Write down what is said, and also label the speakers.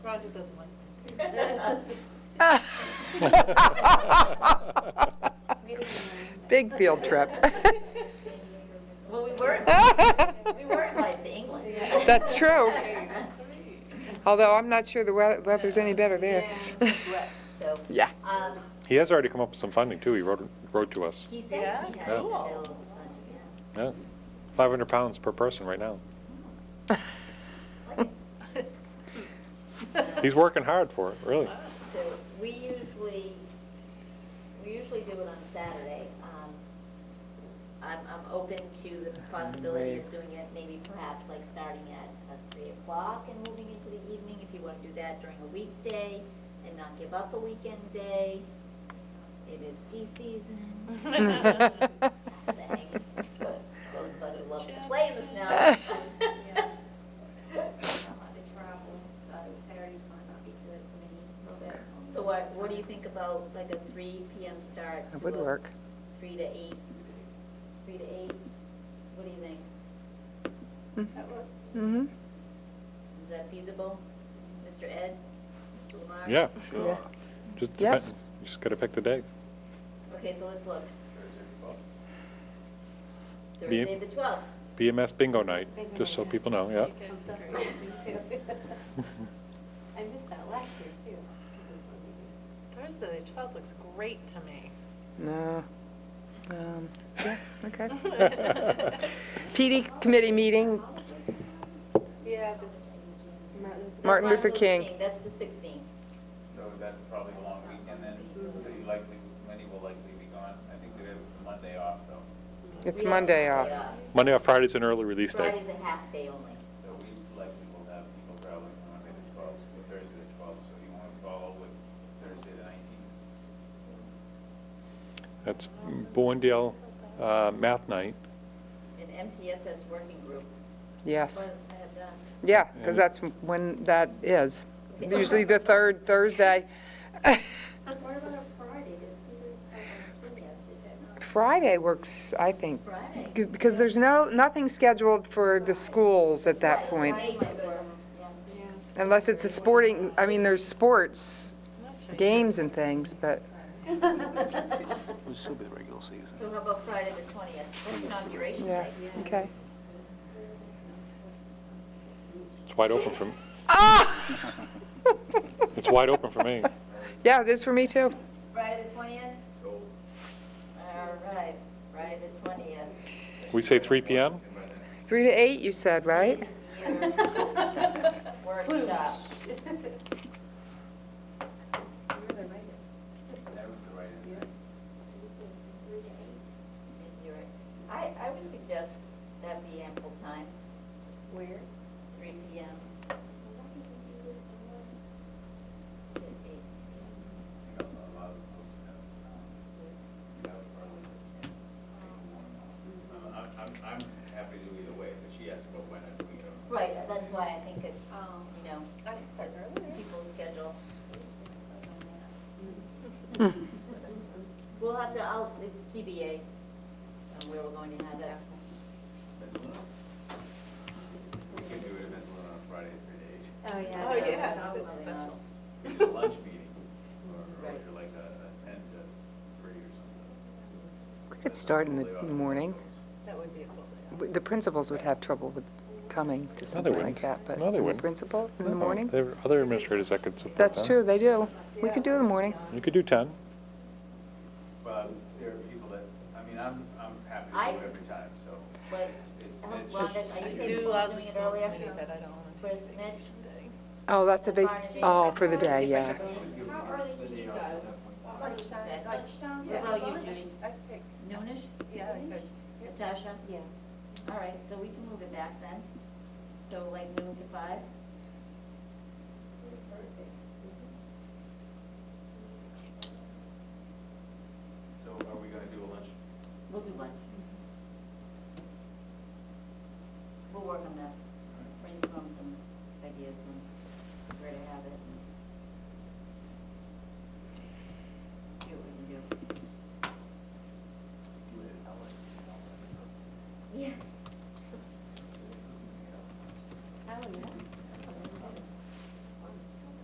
Speaker 1: Roger doesn't like
Speaker 2: Big field trip.
Speaker 3: Well, we were, we were invited to England.
Speaker 2: That's true. Although I'm not sure the wea- weather's any better there.
Speaker 3: Well, So,
Speaker 2: Yeah.
Speaker 3: um,
Speaker 4: He has already come up with some funding too, he wrote, wrote to us.
Speaker 3: he said he had available funding, yeah.
Speaker 4: Yeah, 500 pounds per person right now. He's working hard for it, really.
Speaker 3: So we usually, we usually do it on Saturday. Um, I'm, I'm open to the possibility of doing it maybe perhaps like starting at uh, three o'clock and moving into the evening, if you want to do that during a weekday and not give up a weekend day. It is ski season. Saying, Those of us who love to play this now. So what, what do you think about like a three PM start?
Speaker 2: It
Speaker 3: to
Speaker 2: would
Speaker 3: a
Speaker 2: work.
Speaker 3: Three to eight, three to eight, what do you think?
Speaker 2: Mhm.
Speaker 3: Is that feasible, Mr. Ed, Mr. Lamar?
Speaker 4: Yeah.
Speaker 2: Yeah.
Speaker 4: Just
Speaker 2: Yes.
Speaker 4: depend, you just gotta pick the day.
Speaker 3: Okay, so let's look.
Speaker 4: Be-
Speaker 3: Thursday the twelfth.
Speaker 4: BMS bingo night, just so people know, yeah.
Speaker 5: I missed that last year too. 'cause of the meeting.
Speaker 1: Thursday, the twelfth looks great to me.
Speaker 2: No. Um, Yeah, okay. PD committee meeting,
Speaker 5: Yeah, but Martin.
Speaker 2: Martin Luther King.
Speaker 3: That's the sixteenth.
Speaker 6: So that's probably a long weekend then, so you likely, many will likely be gone. I think they have Monday off though,
Speaker 2: It's Monday off.
Speaker 4: Monday or Friday's an early release day.
Speaker 3: Friday's a half day only.
Speaker 6: so we likely will have people traveling from Monday the twelfth to Thursday the twelfth, so you want to follow with Thursday the nineteenth.
Speaker 4: That's Boondale uh, Math Night.
Speaker 3: An MTSS working group.
Speaker 2: Yes.
Speaker 3: What I have done.
Speaker 2: Yeah, because that's when that is. Usually the third Thursday.
Speaker 3: What about a Friday, this group, is that not
Speaker 2: Friday works, I think,
Speaker 3: Friday?
Speaker 2: g- because there's no, nothing scheduled for the schools at that point.
Speaker 3: Friday might work, yeah.
Speaker 2: Unless it's a sporting, I mean, there's sports,
Speaker 1: I'm not sure.
Speaker 2: games and things, but
Speaker 7: It'll still be the regular season.
Speaker 3: So how about Friday the twentieth, that's inauguration
Speaker 2: yeah,
Speaker 3: day.
Speaker 2: okay.
Speaker 4: It's wide open for,
Speaker 2: Ah!
Speaker 4: it's wide open for me.
Speaker 2: Yeah, this for me too.
Speaker 3: Friday the twentieth? All right, Friday the twentieth.
Speaker 4: We say 3 PM?
Speaker 2: Three to eight, you said, right?
Speaker 3: Workshop.
Speaker 6: That was the right end.
Speaker 3: You're right. I, I would suggest that be ample time. Where? Three P M.
Speaker 6: You know, a lot of folks have, um, get out early and take a morning off. Uh, I'm, I'm, I'm happy to do either way, but she asked about when I'm doing it.
Speaker 3: Right, that's why I think it's,
Speaker 5: Um,
Speaker 3: you know, people's schedule. We'll have to, I'll, it's TBA, um, where we're going to have that.
Speaker 6: Mezzaluna? We can do it at Mezzaluna on Friday if it is.
Speaker 3: Uh,
Speaker 5: Oh, yeah.
Speaker 1: Oh, yeah.
Speaker 6: It's a lunch meeting, or or you're like a a ten to three or something.
Speaker 2: We could start in the in the morning.
Speaker 1: That would be a cool day.
Speaker 2: W- The principals would have trouble with coming to something like
Speaker 4: wouldn't.
Speaker 2: that, but
Speaker 4: No, they
Speaker 2: the
Speaker 4: wouldn't.
Speaker 2: principal in the
Speaker 4: No,
Speaker 2: morning?
Speaker 4: There are other administrators that could support
Speaker 2: That's
Speaker 4: them.
Speaker 2: true, they do. We could do it in the morning.
Speaker 4: You could do 10.
Speaker 6: But there are people that, I mean, I'm, I'm happy
Speaker 3: I-
Speaker 6: to do it every time, so
Speaker 3: But
Speaker 6: it's, it's
Speaker 3: how
Speaker 6: Mitch.
Speaker 3: long is-
Speaker 1: I
Speaker 3: are you
Speaker 1: do
Speaker 3: capable of
Speaker 1: love
Speaker 3: doing
Speaker 1: this
Speaker 3: it earlier?
Speaker 1: committee, but I don't want to
Speaker 3: Where's
Speaker 1: take
Speaker 3: the next?
Speaker 1: vacation day.
Speaker 2: Oh, that's a big, oh, for the day, yeah.
Speaker 8: How early do you go? Lunchtime, lunchtime?
Speaker 3: Yeah. How about you, Judy?
Speaker 8: I think,
Speaker 3: Noonish?
Speaker 8: yeah, I could.
Speaker 3: Natasha? Yeah. All right, so we can move it back then. So like noon to five?
Speaker 6: So are we gonna do a lunch?
Speaker 3: We'll do lunch. Mm-hmm.